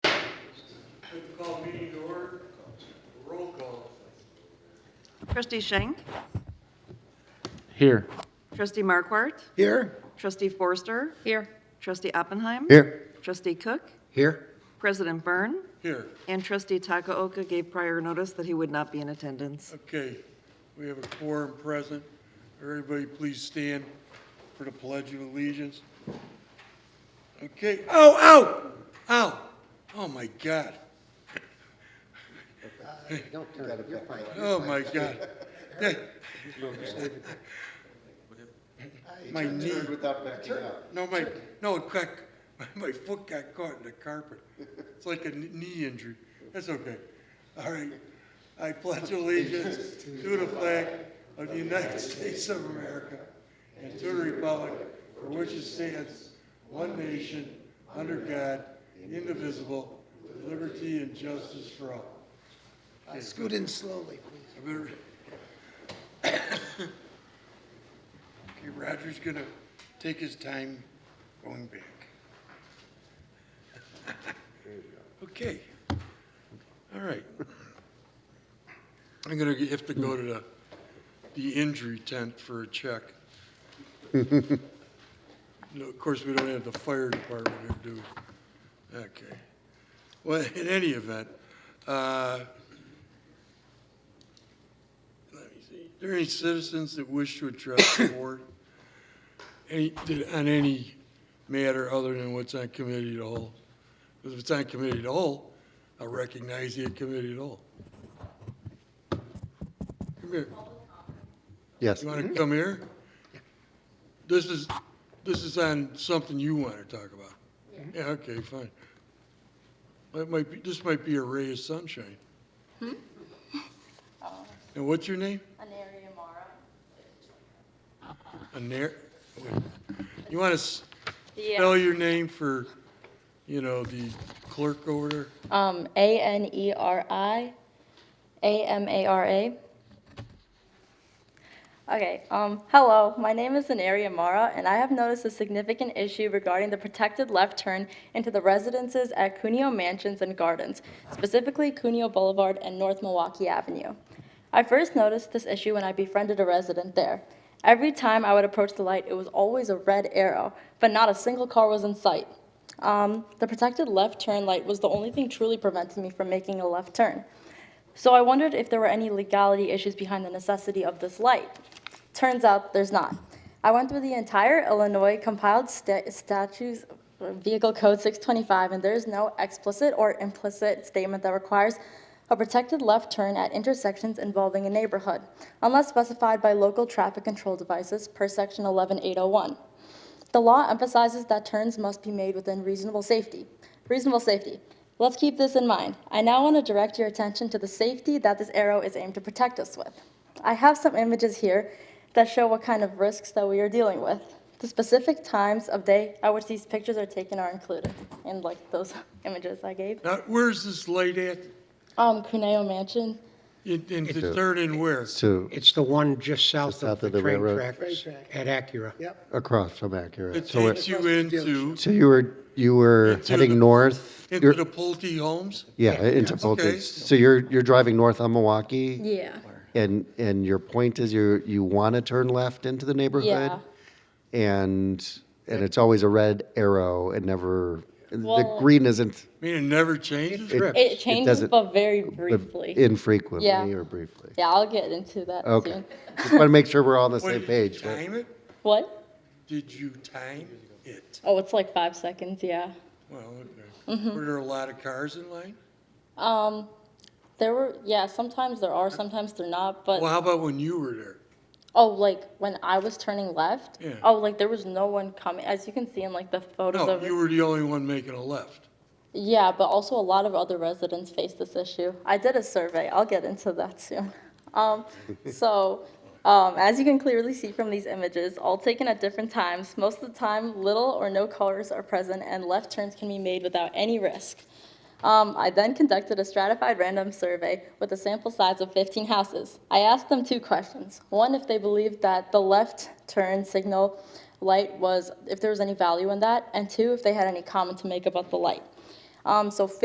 Good to call meeting to order. Roll call. Trustee Schenk. Here. Trustee Markwart. Here. Trustee Forster. Here. Trustee Oppenheim. Here. Trustee Cook. Here. President Byrne. Here. And Trustee Takaoka gave prior notice that he would not be in attendance. Okay, we have a quorum present. Everybody please stand for the pledge of allegiance. Okay, ow, ow, ow. Oh my God. Don't turn, it. you're fine. Oh my God. That- My knee. Without backing up. No, my, no, it got, my foot got caught in the carpet. It's like a kn- knee injury. That's okay. All right. I pledge allegiance to the flag of the United States of America and to the republic for which it stands, one nation, under God, indivisible, with liberty and justice for all. Scoot in slowly, I better- Okay, Roger's gonna take his time going back. Okay, all right. I'm gonna have to go to the, the injury tent for a check. No, of course, we don't have the fire department here, do we? Okay. Well, in any event, uh, let me see. Are there any citizens that wish to address the board? Any, did- on any matter other than what's on committee at all? Because if it's on committee at all, I recognize the committee at all. Come here. Yes. You want to come here? This is, this is on something you want to talk about. Yeah, okay, fine. That might be, this might be a ray of sunshine. And what's your name? Anaria Mara. Anar, wait. you want to spell Yeah. your name for, you know, the clerk over there? Um, A N E R I A M A R A. Okay, um, hello, my name is Anaria Mara, and I have noticed a significant issue regarding the protected left turn into the residences at Cuneo Mansions and Gardens, specifically Cuneo Boulevard and North Milwaukee Avenue. I first noticed this issue when I befriended a resident there. Every time I would approach the light, it was always a red arrow, but not a single car was in sight. Um, the protected left turn light was the only thing truly preventing me from making a left turn. So I wondered if there were any legality issues behind the necessity of this light. Turns out there's not. I went through the entire Illinois compiled sta- statutes, uh, Vehicle Code 625, and there is no explicit or implicit statement that requires a protected left turn at intersections involving a neighborhood, unless specified by local traffic control devices per Section 11801. The law emphasizes that turns must be made within reasonable safety. Reasonable safety. Let's keep this in mind. I now want to direct your attention to the safety that this arrow is aimed to protect us with. I have some images here that show what kind of risks that we are dealing with. The specific times of day at which these pictures are taken are included in like those images I gave. Now, where's this light at? Um, Cuneo Mansion. In, in the third and where? to It's the one just south of south the of the train railroad. tracks at Acura. Yep. across from Acura. It So, it- takes you into, so you were you were Into the- heading north. into you're- the Pulte homes? yeah, into Pulte. Okay. So you're you're driving north on Milwaukee, Yeah. and and your point is you you want to turn left into the neighborhood, Yeah. and and it's always a red arrow and never the Well- green isn't I mean, it never changes? Correct. It It changes, doesn't- but very but briefly. infrequently Yeah. or briefly. yeah, I'll get into that Okay, soon. just want to make sure we're all on the What, did same you page. but- Time it? What? Did you time it? Oh, it's like five seconds, yeah. Well, okay. Mm-hmm. Were there a lot of cars in line? Um, there were, yeah, sometimes there are, sometimes they're not, but, Well, how about when you were there? oh, like, when I was turning left, Yeah. oh, like, there was no one coming, as you can see in, like, the photos No, of, you were the only one making a left. yeah, but also a lot of other residents face this issue. I did a survey, I'll get into that soon. Um, so, um, as you can clearly see from these images, all taken at different times, most of the time, little or no cars are present, and left turns can be made without any risk. Um, I then conducted a stratified random survey with a sample size of 15 houses. I asked them two questions. One, if they believed that the left turn signal light was, if there was any value in that, and two, if they had any comment to make about the light. Um, so